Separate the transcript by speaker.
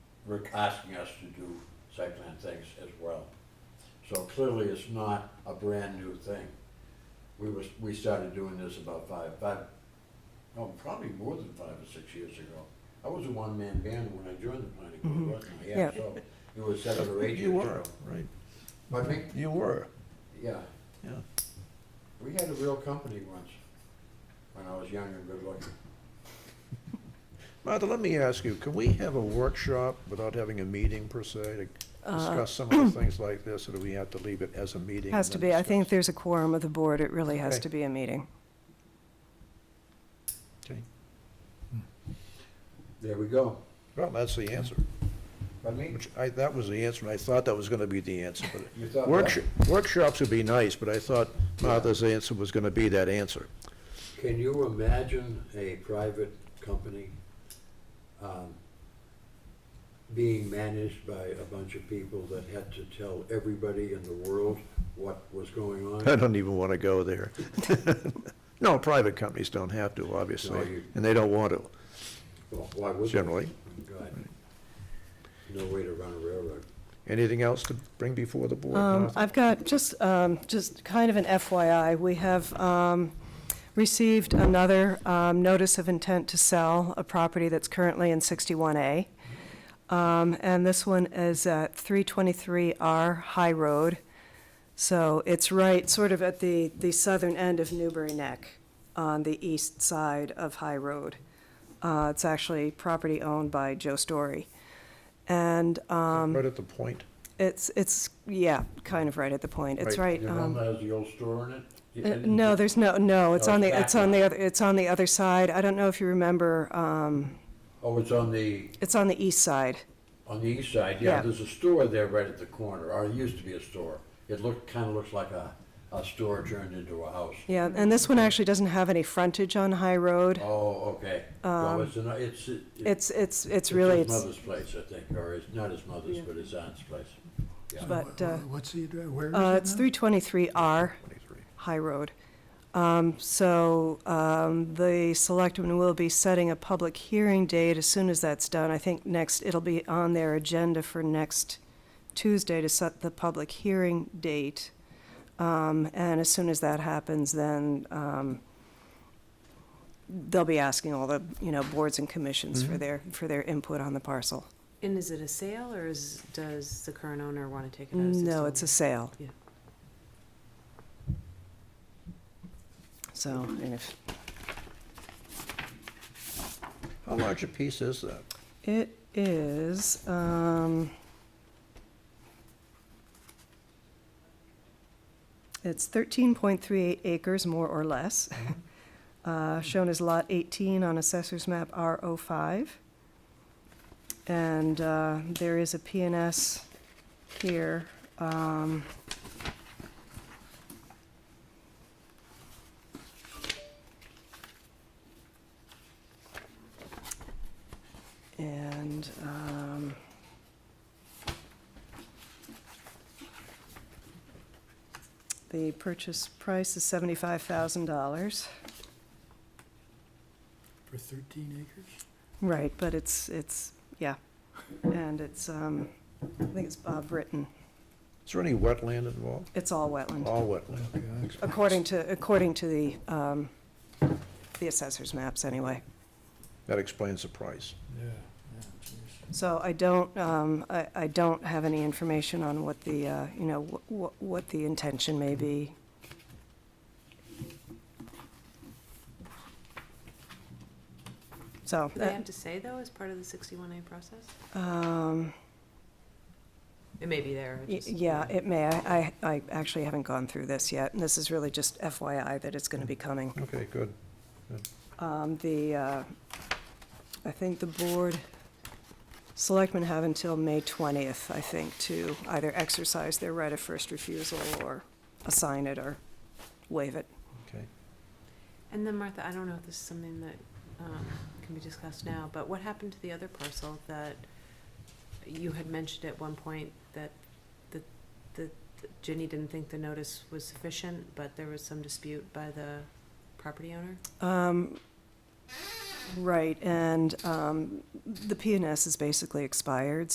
Speaker 1: re- asking us to do site plan things as well. So clearly, it's not a brand-new thing. We was, we started doing this about five, five, no, probably more than five or six years ago. I was a one-man band when I joined the planning
Speaker 2: Mhm.
Speaker 1: board, wasn't I? Yeah,
Speaker 2: Yeah.
Speaker 1: so it was seven or eight years
Speaker 3: You were,
Speaker 1: ago.
Speaker 3: right?
Speaker 1: But me,
Speaker 3: You were,
Speaker 1: yeah,
Speaker 3: yeah.
Speaker 1: we had a real company once, when I was young and good-looking.
Speaker 3: Martha, let me ask you, can we have a workshop without having a meeting per se to
Speaker 2: Uh,
Speaker 3: discuss some of the things like this, or do we have to leave it as a meeting? and
Speaker 2: Has to
Speaker 3: then
Speaker 2: be, I think if
Speaker 3: discuss?
Speaker 2: there's a quorum of the board, it really has
Speaker 3: Okay.
Speaker 2: to be a meeting.
Speaker 3: Okay.
Speaker 1: There we go.
Speaker 3: Well, that's the answer,
Speaker 1: But me,
Speaker 3: which I, that was the answer, and I thought that was gonna be the answer, but
Speaker 1: you thought that?
Speaker 3: workshop, workshops would be nice, but I thought Martha's answer was gonna be that answer.
Speaker 1: Can you imagine a private company um, being managed by a bunch of people that had to tell everybody in the world what was going
Speaker 3: I
Speaker 1: on?
Speaker 3: don't even wanna go there. No, private companies don't have to,
Speaker 1: No,
Speaker 3: obviously,
Speaker 1: you-
Speaker 3: and they don't want to,
Speaker 1: Well, Why would they? Oh,
Speaker 3: generally.
Speaker 1: God. No way to run a railroad.
Speaker 3: Anything else to bring before the board?
Speaker 2: Um,
Speaker 3: Martha?
Speaker 2: I've got just, um, just kind of an FYI. We have um, received another um, notice of intent to sell a property that's currently in 61A. Um, And this one is at 323R High Road. So it's right, sort of at the, the southern end of Newbury Neck, on the east side of High Road. Uh, It's actually property owned by Joe Story. And um,
Speaker 3: Right at the point.
Speaker 2: it's, it's, yeah, kind of right at the point. It's right,
Speaker 1: You
Speaker 2: um,
Speaker 1: remember has the old store in it? You-
Speaker 2: uh,
Speaker 1: and-
Speaker 2: no, there's no, no, it's
Speaker 1: No,
Speaker 2: on
Speaker 1: it's
Speaker 2: the,
Speaker 1: back
Speaker 2: it's on
Speaker 1: now.
Speaker 2: the, other it's on the other side. I don't know if you remember, um,
Speaker 1: Oh, it's on the,
Speaker 2: it's on the east side.
Speaker 1: on the east side, yeah,
Speaker 2: Yeah.
Speaker 1: there's a store there right at the corner, or it used to be a store. It looked, kind of looks like a, a store turned into a house.
Speaker 2: Yeah, and this one actually doesn't have any frontage on High Road.
Speaker 1: Oh, okay. Well, it's, an- it's. it-
Speaker 2: Um, It's, it's, it's really,
Speaker 1: his
Speaker 2: it's,
Speaker 1: mother's place, I think, or it's not his mother's,
Speaker 2: Yeah.
Speaker 1: but his aunt's place. Yeah.
Speaker 2: but, uh,
Speaker 4: What's the, address? where is it
Speaker 2: uh, it's
Speaker 4: now?
Speaker 2: three twenty-three R
Speaker 3: 23.
Speaker 2: High Road. Um, so, um, the selectmen will be setting a public hearing date as soon as that's done. I think next, it'll be on their agenda for next Tuesday to set the public hearing date. Um, and as soon as that happens, then, um, they'll be asking all the, you know, boards and commissions
Speaker 5: Mm-hmm.
Speaker 2: for their, for their input on the parcel.
Speaker 5: And is it a sale or is, does the current owner want to take it out of
Speaker 2: No, it's a sale.
Speaker 5: Yeah.
Speaker 2: So, and if,
Speaker 3: How large a piece is that?
Speaker 2: It is, um, it's thirteen point three eight acres, more or less. Uh, shown as lot eighteen on assessor's map R 5 And, uh, there is a PNS here, um. And, um, the purchase price is seventy-five thousand dollars.
Speaker 4: For thirteen acres?
Speaker 2: Right, but it's, it's, yeah, and it's, um, I think it's Bob Britton.
Speaker 3: Is there any wetland involved?
Speaker 2: It's all wetland,
Speaker 3: All wetland.
Speaker 4: Okay, I expect-
Speaker 2: according to, according to the, um, the assessor's maps anyway.
Speaker 3: That explains the price.
Speaker 4: Yeah, yeah, geez.
Speaker 2: So I don't, um, I, I don't have any information on what the, uh, you know, what, what the intention may be. So, uh,
Speaker 5: Do they have to say though, as part of the sixty-one A process?
Speaker 2: um,
Speaker 5: It may be there. I
Speaker 2: y-
Speaker 5: just-
Speaker 2: yeah, it may, I, I I actually haven't gone through this yet, and this is really just FYI that it's gonna be coming.
Speaker 3: Okay, good.
Speaker 2: Um, The, uh, I think the board, selectmen have until May 20th, I think, to either exercise their right of first refusal or assign it or waive it.
Speaker 3: Okay.
Speaker 5: And then Martha, I don't know if this is something that um, can be discussed now, but what happened to the other parcel that you had mentioned at one point that, that, that Ginny didn't think the notice was sufficient, but there was some dispute by the property owner?
Speaker 2: Um, Right, and um, the PNS is basically expired,